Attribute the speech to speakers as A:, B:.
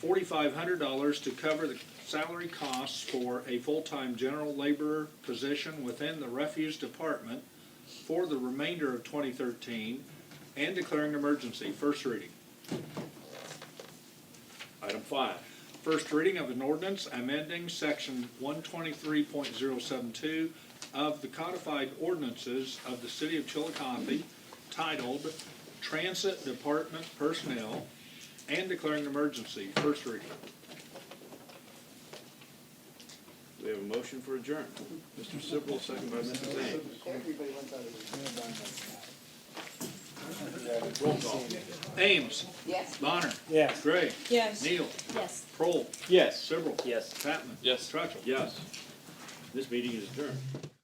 A: forty-five hundred dollars to cover the salary costs for a full-time general laborer position within the refuse department for the remainder of twenty thirteen and declaring emergency. First reading. Item five, first reading of an ordinance amending section one twenty-three point zero seven two of the codified ordinances of the city of Chillicothe titled Transit Department Personnel and declaring an emergency. First reading.
B: We have a motion for adjournment. Mr. Sippel, second by Mrs. Ames.
C: Everybody wants out of here.
B: Roll call.
A: Ames.
C: Yes.
A: Bonner.
D: Yes.
A: Gray.
E: Yes.
A: Neal.
E: Yes.
A: Prohl.
D: Yes.
A: Sibrel.
D: Yes.
A: Patman.
D: Yes.
A: Truttle.
B: Yes. This meeting is adjourned.